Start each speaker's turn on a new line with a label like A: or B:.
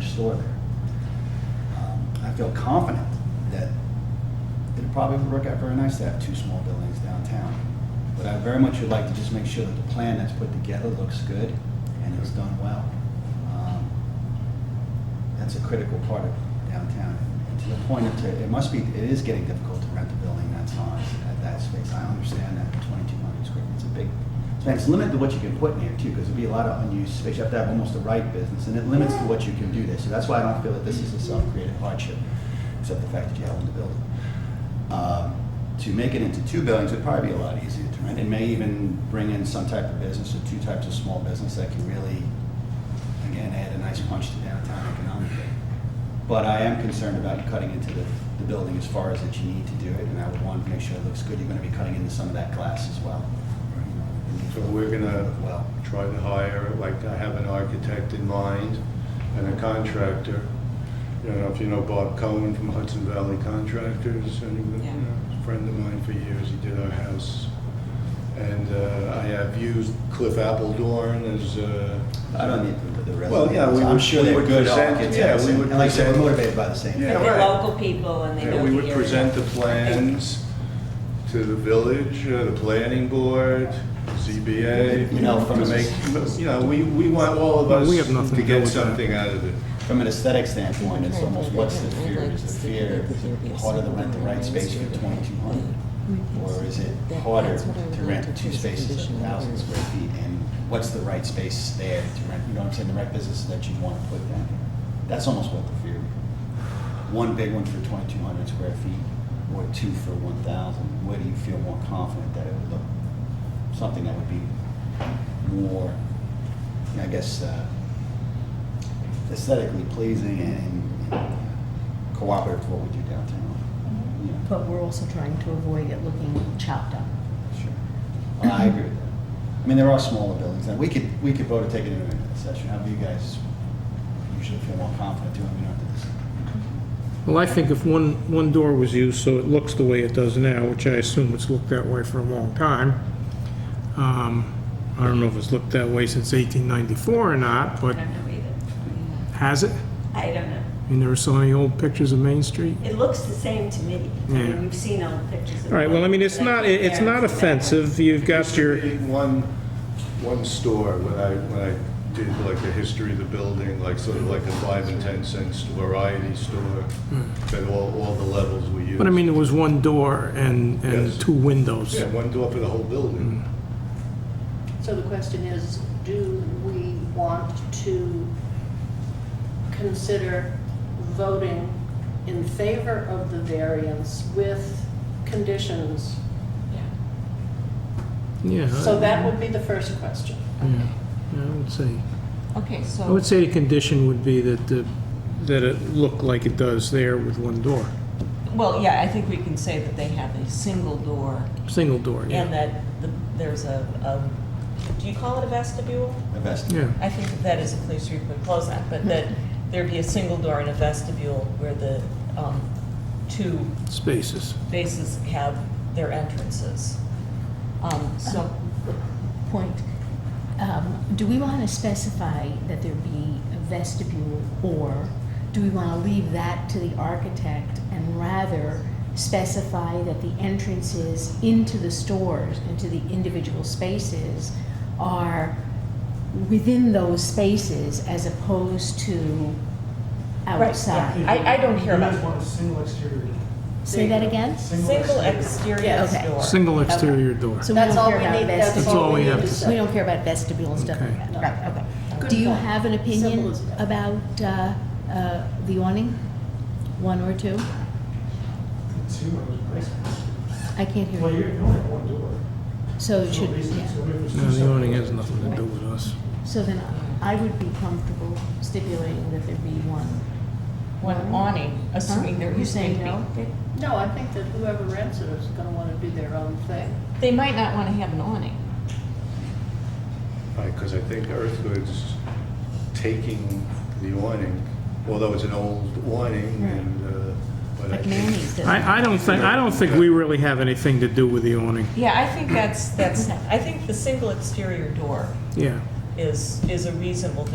A: store there. Um, I feel confident that it'd probably work out very nice to have two small buildings downtown. But I very much would like to just make sure that the plan that's put together looks good and it's done well. Um, That's a critical part of downtown. And to the point of, it must be, it is getting difficult to rent a building that size, at that space. I understand that, twenty-two hundred square feet, it's a big, and it's limited to what you can put in here too, because there'd be a lot of unused space. You have to have almost the right business, and it limits to what you can do there. So that's why I don't feel that this is a self-created hardship, except the fact that you own the building. Um, To make it into two buildings would probably be a lot easier to rent. It may even bring in some type of business or two types of small business that can really, again, add a nice punch to downtown economically. But I am concerned about cutting into the, the building as far as that you need to do it, and I would want to make sure it looks good. You're going to be cutting into some of that glass as well.
B: So we're gonna
A: Well.
B: try to hire, like, I have an architect in mind and a contractor. I don't know if you know Bob Cohen from Hudson Valley Contractors, anyone,
C: Yeah.
B: you know, a friend of mine for years, he did our house. And uh, I have used Cliff Appledorn as, uh,
A: I don't need the- the resume.
B: Well, yeah, we
A: I'm
B: would-
A: sure
B: we
A: they're
B: would
A: good
B: present-
A: architects.
B: yeah, we would
A: And like I said, we're
B: present-
A: motivated by the same
B: Yeah,
A: thing.
C: And they're
B: right.
C: local people and they know the
B: yeah,
C: area.
B: we would present the plans to the village, uh, the planning board, ZBA.
A: You know, from
B: to
A: a-
B: make- You know, we, we want all of us
D: We have nothing
B: to
D: to do
B: get
D: with that.
B: something out of it.
A: From an aesthetic standpoint, it's almost, what's the fear? Is the fear harder to rent the right space for twenty-two hundred? Or is it harder to rent two spaces at thousand square feet? And what's the right space there to rent, you know what I'm saying, the right businesses that you want to put down here? That's almost what the fear. One big one for twenty-two hundred square feet, or two for one thousand? Where do you feel more confident that it would look, something that would be more, you know, I guess, uh, aesthetically pleasing and cooperative with what we do downtown.
E: Mm-hmm.
A: Yeah,
F: But we're also trying to avoid it looking chopped up.
A: sure. Well, I agree with that. I mean, there are smaller buildings, and we could, we could vote to take it into a session. How do you guys usually feel more confident doing, we don't have to just
D: Well, I think if one, one door was used, so it looks the way it does now, which I assume it's looked that way for a long time. Um, I don't know if it's looked that way since 1894 or not,
C: I
D: but
C: don't know either.
D: has it?
C: I don't know.
D: You never saw any old pictures of Main Street?
C: It looks the same to me. I
D: Yeah.
C: mean, you've seen all the pictures.
D: All right, well, I mean, it's not, it's not offensive. You've got your,
B: One, one store, when I, when I did like the history of the building, like sort of like a five and 10 cent variety store, that all, all the levels we use.
D: Hmm. but I mean, there was one door and, and
B: Yes.
D: two windows. Hmm.
B: Yeah, one door for the whole building.
E: So the question is, do we want to consider voting in favor of the variance with conditions?
D: Yeah.
E: So that would be the first question.
D: Yeah, I would say.
F: Okay,
D: I
F: so,
D: would say the condition would be that the, that it looked like it does there with one door,
C: Well, yeah, I think we can say that they have a single door
D: single door, yeah.
C: and that the- there's a, a- do you call it a vestibule?
A: invest?
D: Yeah,
C: I think that that is a place where you put close on, but that there be a single door and a vestibule where the um, two
D: spaces.
C: bases have their entrances. Um, So,
F: so, point, um, do we want to specify that there be a vestibule, or do we want to leave that to the architect and rather specify that the entrances into the stores, into the individual spaces, are within those spaces as opposed to
C: Right, yeah.
F: outside?
C: I, I don't care
G: You guys
C: about
G: want a single exterior door.
F: Say that again?
C: single exterior
F: Yeah, okay.
C: door.
D: Single exterior door.
F: So we
E: That's
F: don't
E: all
F: care
E: we
F: about
E: need,
F: vestibules.
E: that's all we need to
D: That's
F: We
E: say.
F: don't care about vestibule and stuff like that,
E: Okay.
F: right, okay.
E: Good
F: Do you
E: point.
F: have an
E: Simple
F: opinion
E: as that.
F: about uh, uh, the awning? One or two?
G: Two of those places.
F: I can't hear
G: Well,
F: you.
G: you you only have one door.
F: So it
G: For
F: should,
G: a reason.
F: yeah.
G: So if there's
D: No,
G: two
D: the
G: separate
D: awning
G: doors,
D: has nothing to do with us.
F: So then I would be comfortable stipulating that there be one.
C: One awning, assuming there
F: You're
C: is going
F: saying
C: to
F: no?
C: be.
E: No, I think that whoever rents it is gonna wanna do their own thing.
C: They might not want to have an awning.
D: Hmm.
B: Because I think Earth Goods taking the awning, although it's an old awning and, uh, but I
F: Like
B: think.
F: Manny's does.
D: I, I don't think, I don't think we really have anything to do with the awning.
C: Yeah, I think that's, that's, I think the single exterior door
D: Yeah.
C: is, is a reasonable thing